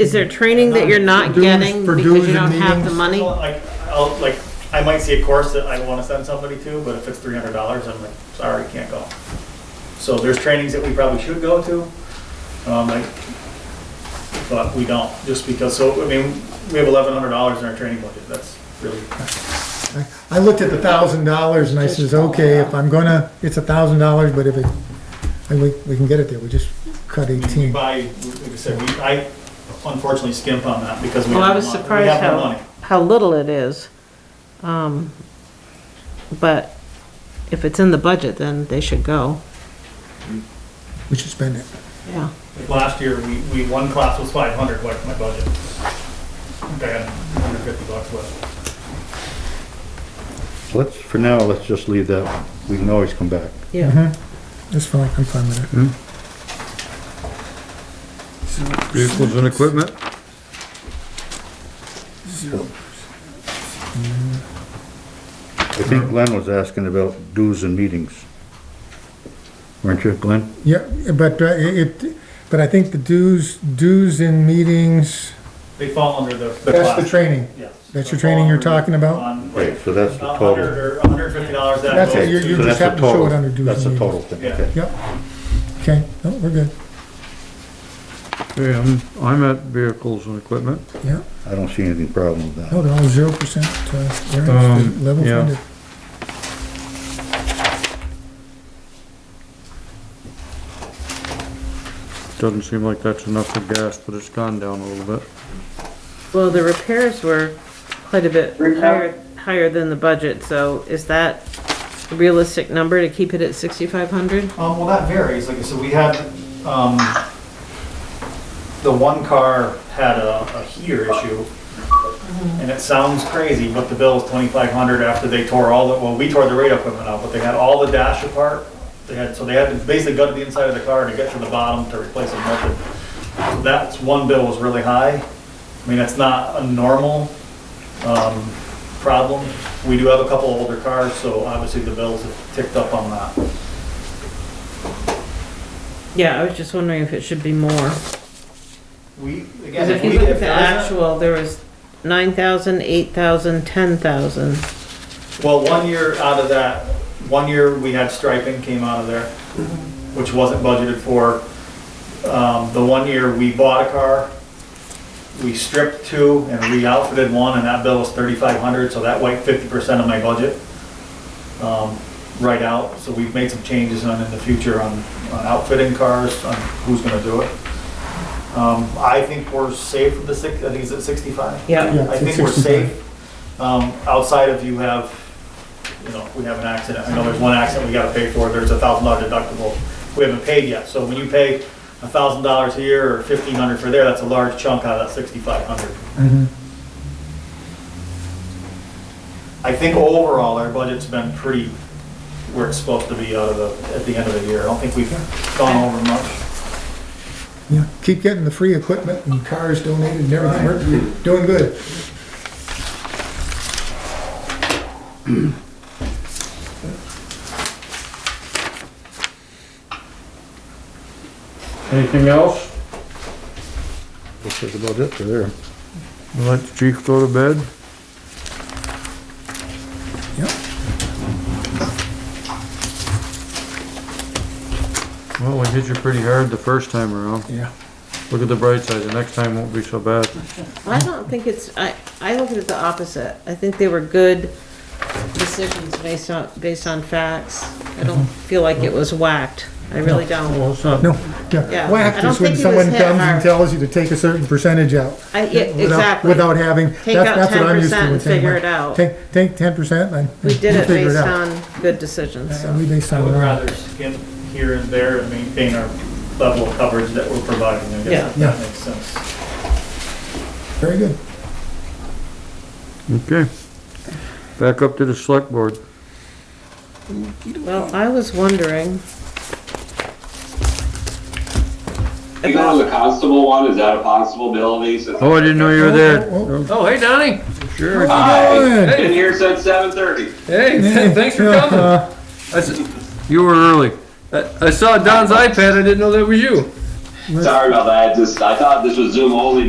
Is there training that you're not For dues- getting for because dues you don't and have the meetings? money? Well, Like, I'll, like, I might see a course that I wanna send somebody to, but if it's three hundred dollars, I'm like, sorry, can't go. So there's trainings that we probably should go to, um, like, but we don't, just because, so, I mean, we have eleven hundred dollars in our training budget, that's really, I looked at the thousand dollars and I says, okay, if I'm gonna, it's a thousand dollars, but if it, and we, we can get it there, we just cut I mean, we eighteen. buy, like I said, we, I unfortunately skimp on that because we Well, I have no was money. We surprised have no how, money. how little it is. Um, But if it's in the budget, then they should go, We should spend it. yeah. Like Last year, we, we, one class was five hundred, like my budget. Okay, hundred fifty bucks left. Let's, for now, let's just leave that. We can always come back. Yeah. That's fine, I'm fine with it. Vehicles and equipment? I think Glenn was asking about dues and meetings. Weren't you, Glenn? Yeah, but uh, it, it- but I think the dues, dues in meetings, They fall under the. that's class. the training. Yes. That's your training you're talking about? On, Right, so that's the about total. 100 or 150 dollars that That's goes. it, you're- to- you So just that's the happen to show it total. under dues That's and the total thing, Yeah. okay. Yep. Okay, no, we're good, Okay, I'm, I'm at vehicles and equipment. yeah. I don't see any problem with that. No, they're all zero percent, uh, variance, Um, they're level yeah. funded. Doesn't seem like that's enough for gas, but it's gone down a little bit. Well, the repairs were quite a bit higher, higher than the budget, so is that a realistic number to keep it at 6,500? Um, well, that varies. Like I said, we had, um, the one car had a, a heater issue. And it sounds crazy, but the bill was 2,500 after they tore all the, well, we tore the radio equipment out, but they had all the dash apart. They had, so they had to basically gutted the inside of the car to get to the bottom to replace the motor. So That's, one bill was really high. I mean, that's not a normal, um, problem. We do have a couple older cars, so obviously the bills have ticked up on that. Yeah, I was just wondering if it should be more. We, Because again, if if you we, look if at the there isn't, actual, there was 9,000, 8,000, 10,000. well, one year out of that, one year we had striping came out of there, which wasn't budgeted for. Um, the one year we bought a car, we stripped two and we outfitted one and that bill was thirty-five hundred, so that wiped fifty percent of my budget. Um, right out, so we've made some changes on in the future on, on outfitting cars, on who's gonna do it. Um, I think we're safe with the six, I think it's at sixty-five? Yeah. I think we're safe. Um, outside of you have, you know, we have an accident, I know there's one accident we gotta pay for, there's a thousand dollar deductible. We haven't paid yet, so when you pay a thousand dollars here or fifteen hundred for there, that's a large chunk out of that sixty-five hundred. I think overall, our budget's been pretty where it's supposed to be out of the, at the end of the year. I don't think we've gone over much. Yeah, keep getting the free equipment and cars donated and everything, we're doing good. Anything else? Looks like about it for there. Let the chief go to bed? Yep. Well, we hit you pretty hard the first time around. Yeah. Look at the bright side, the next time won't be so bad. I don't think it's, I, I look at it the opposite. I think they were good decisions based on, based on facts. I don't Mm-hmm. feel like it was whacked. I really don't. Well, it's not, No, Yeah, yeah, I whacked don't is when think he was someone hit comes hard. and tells you to take a certain percentage out. I, yeah, without- exactly. Without having, that's, Take out that's what I'm used 10% to and with saying, figure like, it out. Take, take ten percent and. We did you it figure based out. on good decisions, And we so. based I on. would rather skim here and there and maintain our level of coverage that we're providing, I guess, if Yeah. that makes sense. Very good. okay. Back up to the select board. Well, I was wondering. You go to the constable one, is that a possibility? Since Oh, I didn't know you were Oh, there. Oh, hey, Donnie. Sure. Hi, Good. been here since seven thirty. Hey, thanks for coming. Uh, I s- You were early. I I saw Don's iPad. I didn't know that was you. Sorry about that, just, I thought this was Zoom only